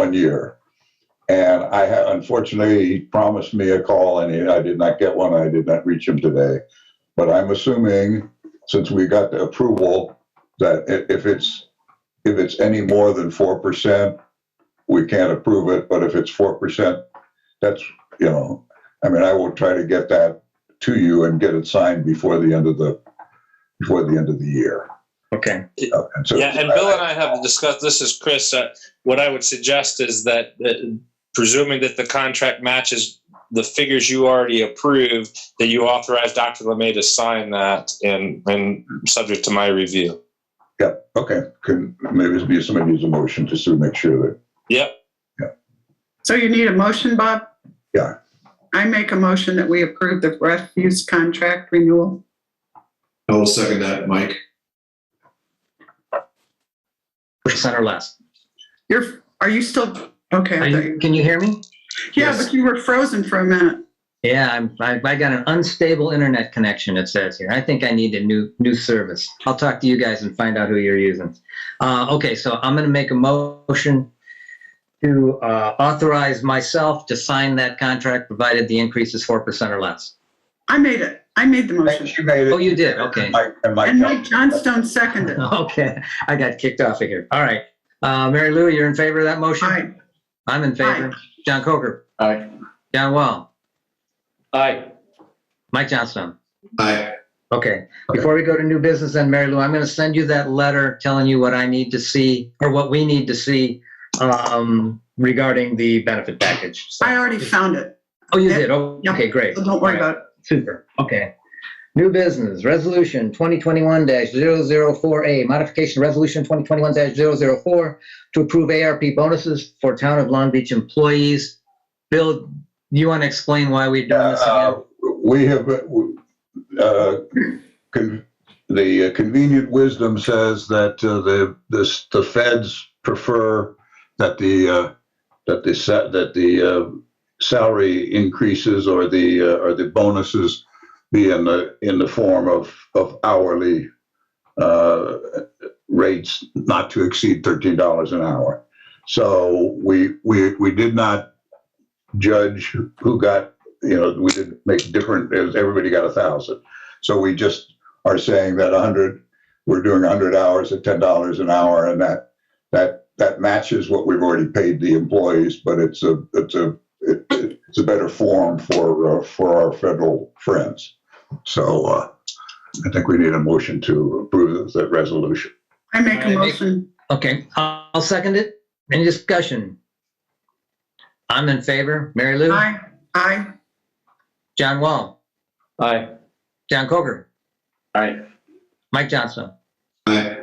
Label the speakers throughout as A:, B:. A: one year. And I ha- unfortunately, he promised me a call and he, I did not get one. I did not reach him today. But I'm assuming, since we got the approval, that i- if it's, if it's any more than 4%, we can't approve it. But if it's 4%, that's, you know, I mean, I will try to get that to you and get it signed before the end of the, before the end of the year.
B: Okay.
A: Uh, And so,
C: Yeah, and Bill and I have discussed, this is Chris, uh, what I would suggest is that uh, presuming that the contract matches the figures you already approved, that you authorize Dr. Lemay to sign that and, and subject to my review.
A: okay, can, maybe it'd be somebody needs a motion just to make sure that
C: Yep.
D: So you need a motion, Bob?
A: Yeah.
D: I make a motion that we approve the refuse contract renewal.
E: I will second that, Mike.
B: Percent or less.
D: You're, are you still, okay.
B: Are
D: I thought
B: you-
D: you-
B: Can you hear me?
D: Yeah, but you were frozen for a minute.
B: Yeah, I'm, I, I got an unstable internet connection, it says here. I think I need a new, new service. I'll talk to you guys and find out who you're using. Uh, okay, so I'm gonna make a motion to, uh, authorize myself to sign that contract, provided the increase is four percent or less.
D: I made it. I made the motion.
A: She made it.
B: Oh, you did, okay.
A: Mike, and Mike.
D: And Mike Johnstone seconded.
B: Uh-huh. Okay, I got kicked off of here. All right. Uh, Mary Lou, you're in favor of that motion?
D: Aye.
B: I'm in favor. John Coker.
F: Aye.
B: John Wall.
F: Aye.
B: Mike Johnstone.
E: Aye.
B: Okay, before we go to new business then, Mary Lou, I'm going to send you that letter telling you what I need to see or what we need to see um, regarding the benefit package. So-
D: I already found it,
B: Oh, you did? Oh,
D: Yeah.
B: Okay, great.
D: so don't worry about it.
B: Super, okay. New business, resolution 2021-004A, modification resolution 2021-004 to approve ARP bonuses for Town of Long Beach employees. Bill, you want to explain why we're doing this again?
A: Uh, We have, uh, con- the convenient wisdom says that uh, the, this, the feds prefer that the, uh, that the, sa- that the uh, salary increases or the, uh, or the bonuses be in the, in the form of, of hourly uh, rates not to exceed $13 an hour. So we, we, we did not judge who got you know, we didn't make different, as everybody got a thousand. So we just are saying that a hundred, we're doing a hundred hours at ten dollars an hour and that, that, that matches what we've already paid the employees, but it's a, it's a, it, it's a better form for, uh, for our federal friends. So, uh, I think we need a motion to approve that resolution.
D: I make a
B: Aye.
D: motion.
B: Okay, I'll I'll second it. Any discussion? I'm in favor. Mary Lou?
D: Aye, aye,
B: John Wall?
F: Aye.
B: John Coker?
F: Aye.
B: Mike Johnson?
E: Aye.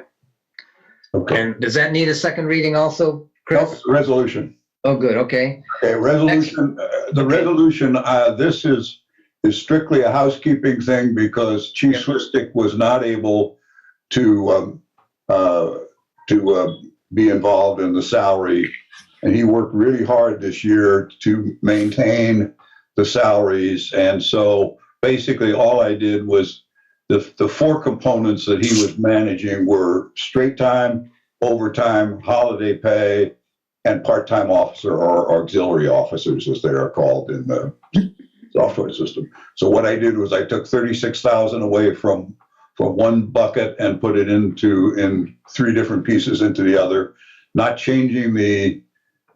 A: Okay.
B: And does that need a second reading also, Chris?
A: Resolution.
B: Oh, good, okay.
A: Okay, resolution, uh, the resolution, uh, this is, is strictly a housekeeping thing because Chief Swistick was not able to, um, uh, to, uh, be involved in the salary. And he worked really hard this year to maintain the salaries. And so basically all I did was the, the four components that he was managing were straight time, overtime, holiday pay, and part-time officer or auxiliary officers, as they are called in the software system. So what I did was I took thirty-six thousand away from, from one bucket and put it into, in three different pieces into the other, not changing the,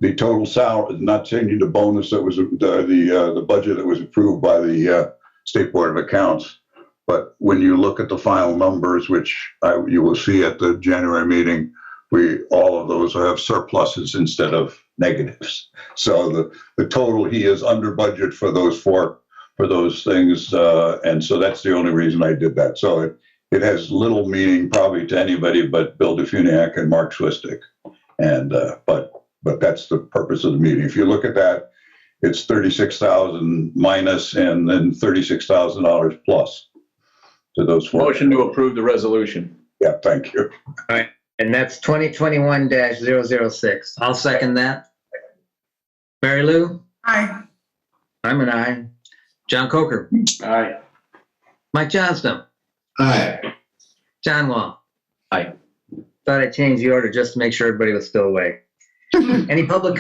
A: the total salary, not changing the bonus that was, the, the, uh, the budget that was approved by the, uh, State Board of Accounts. But when you look at the final numbers, which I, you will see at the January meeting, we, all of those have surpluses instead of negatives. So the, the total, he is under budget for those four, for those things. Uh, and so that's the only reason I did that. So it, it has little meaning probably to anybody but Bill Defuniak and Mark Swistick. And, uh, but, but that's the purpose of the meeting. If you look at that, it's 36,000 minus and then $36,000 plus to those four.
F: Motion to approve the resolution.
A: Yeah, thank you.
B: And that's 2021-006. I'll second that. Mary Lou?
D: aye,
B: I'm an aye. John Coker?
F: Aye.
B: Mike Johnston?
E: Aye.
B: John Wall?
F: Aye.
B: Thought I changed the order just to make sure everybody was still awake. Any public